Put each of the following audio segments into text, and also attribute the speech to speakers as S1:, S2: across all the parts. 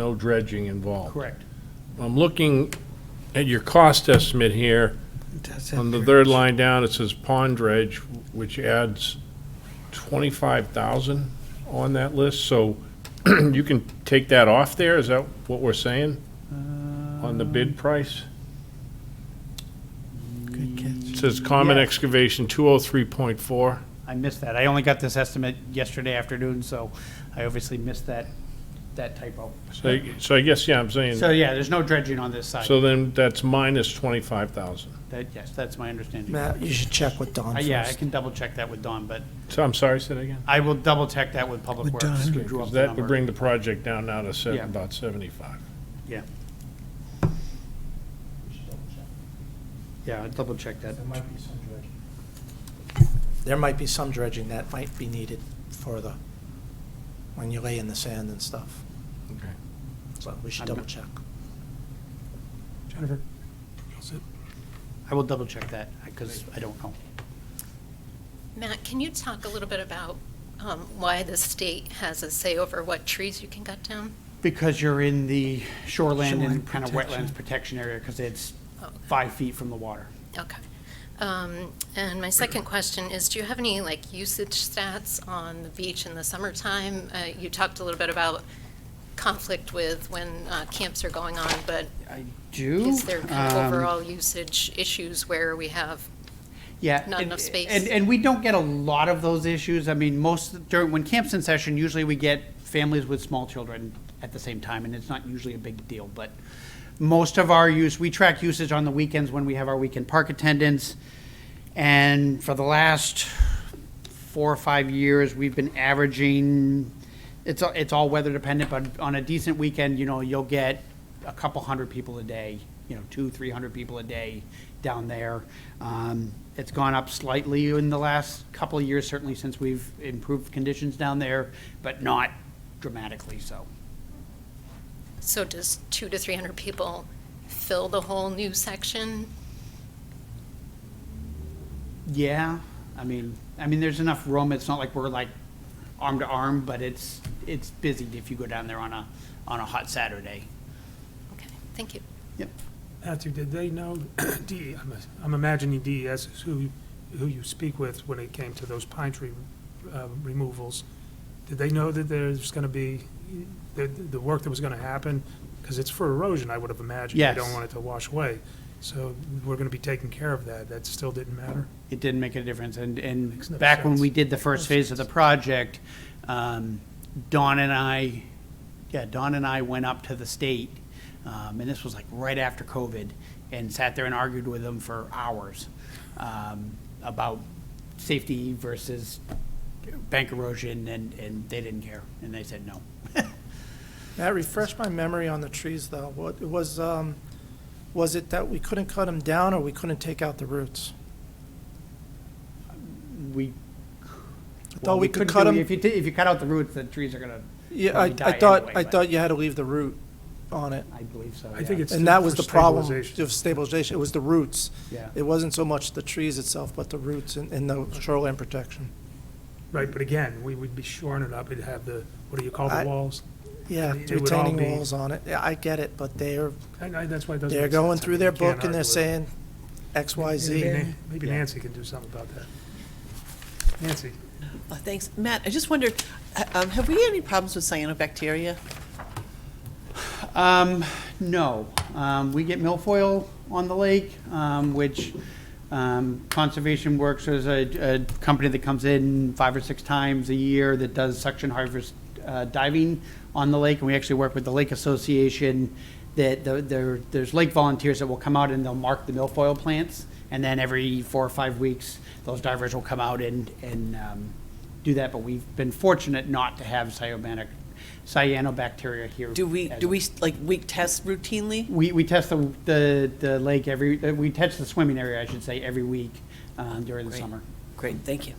S1: No dredging involved.
S2: Correct.
S1: I'm looking at your cost estimate here. On the third line down, it says pond dredge, which adds 25,000 on that list. So you can take that off there? Is that what we're saying
S2: Uh,
S1: on the
S2: Um,
S1: bid price?
S3: Good catch.
S1: It says common
S2: Yeah.
S1: excavation 203.4.
S2: I missed that. I only got this estimate yesterday afternoon, so I obviously missed that, that typo.
S1: So, so I guess, yeah, I'm saying,
S2: So, yeah, there's no dredging on this side.
S1: so then that's minus 25,000.
S2: That, yes, that's my understanding. Uh,
S3: Matt, you should check with Don first.
S2: Yeah, I can double check that with Don, but
S1: So I'm sorry, say that again?
S2: I will double check that with Public
S3: With
S2: Works.
S3: Don.
S2: who drew up
S1: Because
S2: the
S1: that would
S2: number.
S1: bring the project down now to seven-
S2: Yeah.
S1: about 75.
S2: Yeah. Yeah, I'll double check that.
S3: There might be some dredging that might be needed for the, when you lay in the sand and stuff,
S1: Okay.
S3: so we should
S2: I'm not-
S3: double check.
S2: Jennifer? I will double check that, because I don't know.
S4: Matt, can you talk a little bit about um, why the state has a say over what trees you can cut down?
S2: Because you're in the shoreland
S3: Shoreline
S2: and kind of
S3: protection.
S2: wetlands protection area, because it's
S4: Oh.
S2: five feet from the water.
S4: Okay. Um, And my second question is, do you have any, like, usage stats on the beach in the summertime? Uh, You talked a little bit about conflict with when uh, camps are going on, but
S2: I do.
S4: is there kind
S2: um,
S4: of overall usage issues where we have,
S2: yeah,
S4: not
S2: and-
S4: enough space?
S2: And, and we don't get a lot of those issues. I mean, most, during, when camp's in session, usually we get families with small children at the same time, and it's not usually a big deal, but most of our use, we track usage on the weekends when we have our weekend park attendance. And for the last four or five years, we've been averaging, it's, all- it's all weather dependent, but on a decent weekend, you know, you'll get a couple hundred people a day, you know, two, three hundred people a day down there. Um, it's gone up slightly in the last couple of years, certainly since we've improved conditions down there, but not dramatically so.
S4: so does two to 300 people fill the whole new section?
S2: Yeah, I mean, I mean, there's enough room, it's not like we're like arm to arm, but it's, it's busy if you go down there on a, on a hot Saturday.
S4: Okay, thank you.
S2: Yep.
S5: Matthew, did they know, DE, I'm- I'm imagining DES is who, who you speak with when it came to those pine tree uh, removals. Did they know that there's going to be, the, the work that was going to happen? Because it's for erosion, I would have imagined. You
S2: Yes.
S5: don't want it to wash away. So we're going to be taking care of that. That still didn't matter?
S2: It didn't make a difference, and,
S5: Makes no
S2: and back when we
S5: sense.
S2: did the first phase of the project, um, Dawn and I, yeah, Dawn and I went up to the state, um, and this was like right after COVID, and sat there and argued with them for hours, um, about safety versus bank erosion, and, and they didn't care, and they said no.
S3: Matt, refresh my memory on the trees, though. What, it was, um, was it that we couldn't cut them down, or we couldn't take out the roots?
S2: We.
S3: I thought we
S2: couldn't
S3: could cut
S2: do-
S3: 'em-
S2: If you, ta- if you cut out the roots, the trees are gonna,
S3: Yeah,
S2: Well,
S3: I,
S2: they die
S3: I thought,
S2: anyway,
S3: I
S2: but-
S3: thought you had to leave the root on it.
S2: I believe so,
S5: I think
S2: yeah.
S5: it's
S3: And that was
S5: for
S3: the problem
S5: stabilization.
S3: of stabilization, it was the roots.
S2: Yeah.
S3: It wasn't so much the trees itself, but the roots and, and the shoreline protection.
S5: Right, but again, we would be shoring it up. It'd have the, what do you call the
S3: I-
S5: walls?
S3: Yeah,
S5: It would all
S3: retaining
S5: be-
S3: walls on it. Yeah, I get it, but they're,
S5: And I- that's why it doesn't
S3: they're
S5: make sense.
S3: going
S5: I
S3: through
S5: mean,
S3: their
S5: you can't
S3: book and they're
S5: argue
S3: saying
S5: with it.
S3: X, Y, Z.
S5: Maybe- Maybe
S2: Yeah.
S5: Nancy can do something about that. Nancy?
S6: Uh, Thanks. Matt, I just wondered, uh, um, have we had any problems with cyanobacteria?
S2: Um, no. Um, we get milfoil on the lake, um, which, um, Conservation Works is a, a company that comes in five or six times a year that does suction harvest, uh, diving on the lake. And we actually work with the Lake Association that the- there, there's lake volunteers that will come out and they'll mark the milfoil plants. And then every four or five weeks, those divers will come out and, and, um, do that. But we've been fortunate not to have cyanobac- cyanobacteria here.
S6: Do we,
S2: as
S6: do
S2: of
S6: we, like, we test routinely?
S2: we, we test the, the, the lake every, uh, we test the swimming area, I should say, every week um, during the
S6: Great.
S2: summer.
S6: Great, thank you.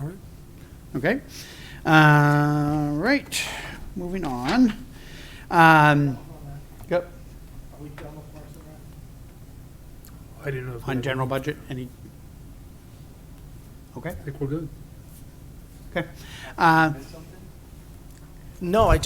S5: All right.
S2: Okay? Uh, right, moving on. Um, yep,
S5: I didn't know. if we
S2: on
S5: had-
S2: general budget, any? Okay,
S5: I think we're good.
S2: okay. Uh,
S3: No, I